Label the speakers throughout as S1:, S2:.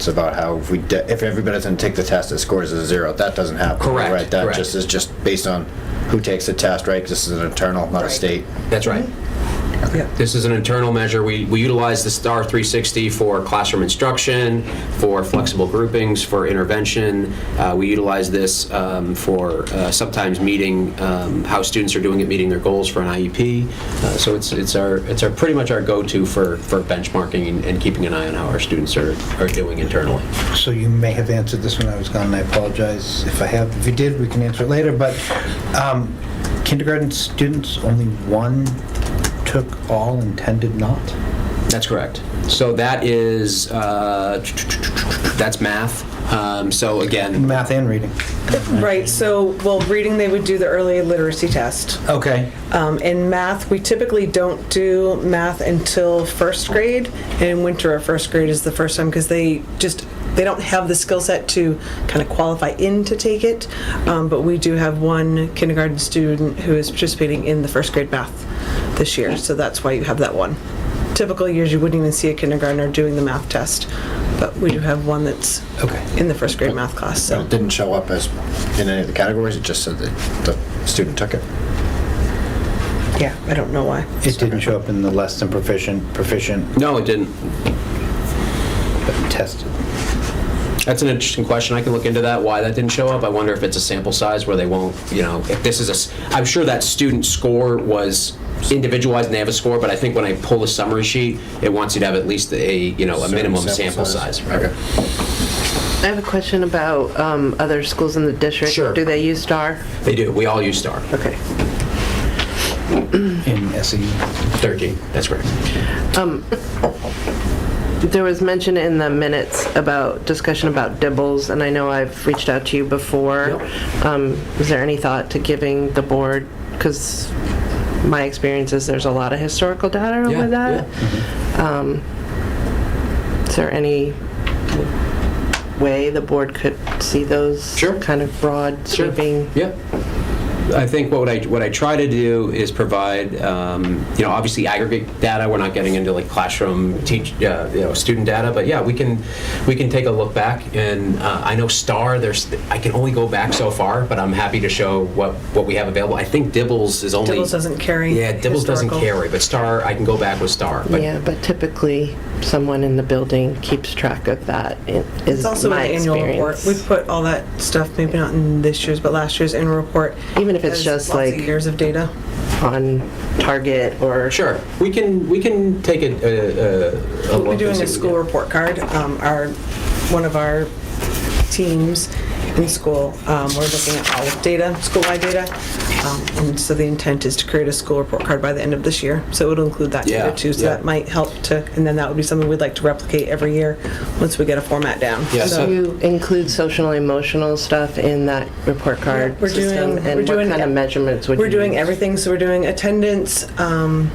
S1: It's about how if we, de- if everybody doesn't take the test, it scores a zero. That doesn't happen.
S2: Correct,
S1: Right, that
S2: correct.
S1: just is just based on who takes the test, right? 'Cause This is an internal, not a
S3: Right.
S1: state.
S2: That's right. This is an internal measure. We, we utilize the STAR 360 for classroom instruction, for flexible groupings, for intervention. Uh, we utilize this um, for uh, sometimes meeting um, how students are doing at meeting their goals for an IEP. Uh, so it's it's our it's our pretty much our go-to for for benchmarking and, and keeping an eye on how our students are, are doing internally.
S4: So you may have answered this when I was gone, and I apologize if I have. If you did, we can answer it later, but um, kindergarten students, only one took all and 10 did not?
S2: That's correct. So that is uh, that's math. Um, so again,
S4: Math and reading.
S3: Right, so, well, reading, they would do the early literacy test.
S4: Okay.
S3: Um, In math, we typically don't do math until first grade, and in winter or first grade is the first time, because they just, they don't have the skill set to kind of qualify in to take it, Um, but we do have one kindergarten student who is participating in the first grade math this year, so that's why you have that one. Typical years, you wouldn't even see a kindergartner doing the math test, but we do have one that's
S4: Okay.
S3: in the first grade math class, so.
S1: It didn't show up as in any of the categories. It just said that the student took it.
S3: Yeah, I don't know why.
S4: It didn't show up in the less than proficient, proficient,
S2: no, it didn't.
S4: but tested.
S2: That's an interesting question. I can look into that, why that didn't show up. I wonder if it's a sample size where they won't, you know, if this is a, s- I'm sure that student score was individualized and they have a score, but I think when I pull a summary sheet, it wants you to have at least a, you know, a
S1: Certain
S2: minimum
S1: sample
S2: sample
S1: size.
S2: size. right?
S5: I have a question about um, other schools in the district.
S2: Sure.
S5: Do they use STAR?
S2: They do. We all use STAR.
S5: Okay.
S4: in E. SE.
S2: 13, that's correct.
S5: There was mention in the minutes about discussion about dibbles, and I know I've reached out to you before. Um, Is there any thought to giving the board, because my experience is there's a lot of historical data
S2: Yeah,
S5: with that.
S2: yeah.
S5: Um, Is there any way the board could see those?
S2: Sure.
S5: Kind of broad sweeping?
S2: Yeah. I think what I, what I try to do is provide, um, you know, obviously aggregate data. We're not getting into like classroom teach, uh, you know, student data, but yeah, we can, we can take a look back. And uh, I know STAR, there's, I can only go back so far, but I'm happy to show what, what we have available. I think Dibbles is only.
S3: Dibbles doesn't carry
S2: Yeah, Dibbles doesn't
S3: historical.
S2: carry, but STAR, I can go back with STAR. but-
S5: Yeah, but typically, someone in the building keeps track of that, i- is
S3: It's also
S5: my
S3: in the annual report.
S5: experience.
S3: We put all that stuff, maybe not in this year's, but last year's annual report.
S5: Even if it's
S3: has
S5: just
S3: lots of
S5: like-
S3: Years of data.
S5: On target or.
S2: Sure, we can, we can take a- a, a, a look.
S3: We're
S2: and
S3: doing
S2: see
S3: a
S2: what we
S3: school
S2: get.
S3: report card. Um, Our, one of our teams in school, um, we're looking at all of data, school-wide data. Um, And so the intent is to create a school report card by the end of this year. So it'll include that
S2: Yeah,
S3: data too. So
S2: yeah.
S3: that might help to, and then that would be something we'd like to replicate every year, once we get a format down.
S2: Yeah,
S3: So-
S2: so-
S5: You include social emotional stuff in that report card
S3: We're doing-
S5: system?
S3: we're
S5: And what
S3: doing-
S5: kind of measurements would you?
S3: We're doing
S5: use?
S3: everything, so we're doing attendance, um,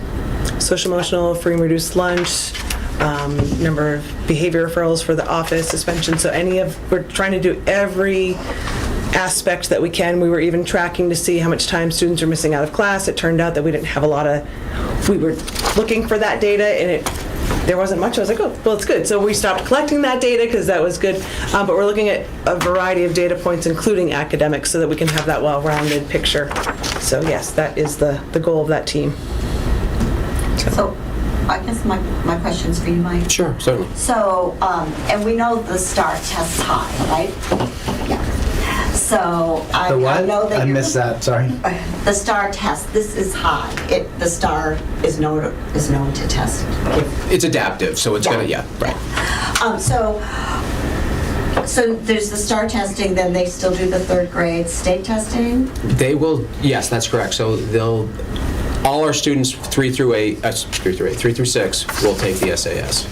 S3: social emotional, free and reduced lunch, um, number of behavior referrals for the office, suspension, so any of, we're trying to do every aspect that we can. We were even tracking to see how much time students are missing out of class. It turned out that we didn't have a lot of, we were looking for that data and it there wasn't much. I was like, oh, well, it's good. So we stopped collecting that data because that was good. Um, but we're looking at a variety of data points, including academics, so that we can have that well-rounded picture. So yes, that is the, the goal of that team.
S6: So I guess my, my question's for you, Mike.
S2: Sure, certainly.
S6: So, um, and we know the STAR test's high, right? Yeah. So I
S4: Mm-hmm. The
S6: I
S4: what?
S6: know that
S4: I
S6: you're- uh,
S4: missed that, sorry.
S6: The STAR test, this is high. It, the STAR is known, is known to test.
S2: It's adaptive, so it's gonna,
S6: Yeah.
S2: yeah, right.
S6: Um, so, so there's the STAR testing, then they still do the third grade state testing?
S2: They will, yes, that's correct. So they'll, all our students, three through eight, uh, three through eight, three through six, will take the SAS.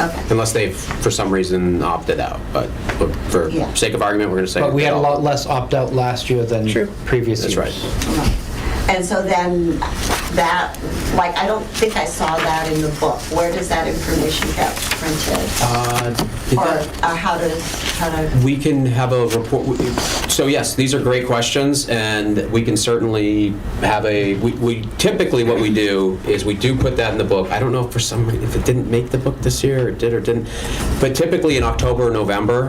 S6: Okay.
S2: Unless they've, for some reason, opted out. But but for
S6: Yeah.
S2: sake of argument, we're gonna say.
S4: But we had a
S2: they'll-
S4: lot less opt-out last year than previous
S2: That's
S4: years.
S2: right.
S6: And so then that, like, I don't think I saw that in the book. Where does that information go? printed?
S2: Uh, did
S6: Or
S2: that-
S6: uh, how to, how to,
S2: We can have a report, so yes, these are great questions, and we can certainly have a, we- we, typically what we do is we do put that in the book. I don't know if for some, if it didn't make the book this year, or did or didn't, but typically in October or November,